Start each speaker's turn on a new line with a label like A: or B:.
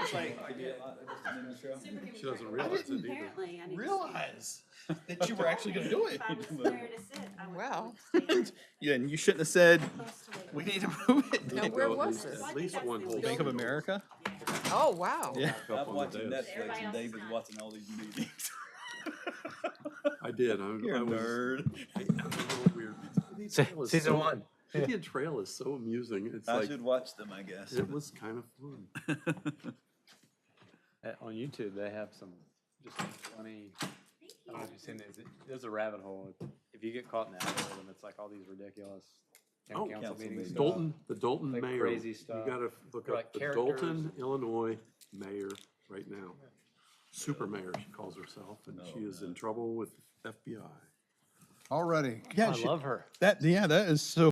A: was like,
B: I did.
C: She doesn't
A: I
C: realize it
A: didn't
C: either.
A: apparently I didn't
B: realize that you were actually gonna do it.
A: If I was there to sit, I would
D: Wow.
A: stand
B: Then you shouldn't have said,
A: close to it.
B: we need to move
D: No,
B: it.
D: where was
A: So I
D: it?
A: think
C: least
A: that's
C: one
A: the
C: whole
A: only-
B: Bank of America?
D: Oh, wow.
B: Yeah.
C: Up
E: I'm
C: on the
E: watching
C: desk.
E: Netflix
A: Everybody
E: and
A: else is
E: David's
A: not.
E: watching all these meetings.
C: I did. I,
B: You're
C: I
B: a
C: was.
B: nerd.
C: I- I'm a little weird. Indian
F: Se-
C: Trail is
F: Season
C: so-
F: one.
C: Indian Trail is so amusing. It's
E: I
C: like
E: should watch them, I guess.
C: it was kind of fun.
F: Uh, On YouTube, they have some just some funny, I don't know if you've seen it, it- there's a rabbit hole. If you get caught in the algorithm, it's like all these ridiculous
C: Oh,
F: town council
E: council
F: meetings.
E: meetings.
F: stuff.
C: Dalton, the Dalton
F: Like
C: mayor.
F: crazy
C: You
F: stuff.
C: gotta f- look
F: Or
C: up
F: like
C: the Dalton,
F: characters.
C: Illinois mayor right now. Super mayor, she calls herself, and
F: Oh,
C: she is in trouble with FBI.
G: Already.
F: I love her.
G: That, yeah, that is so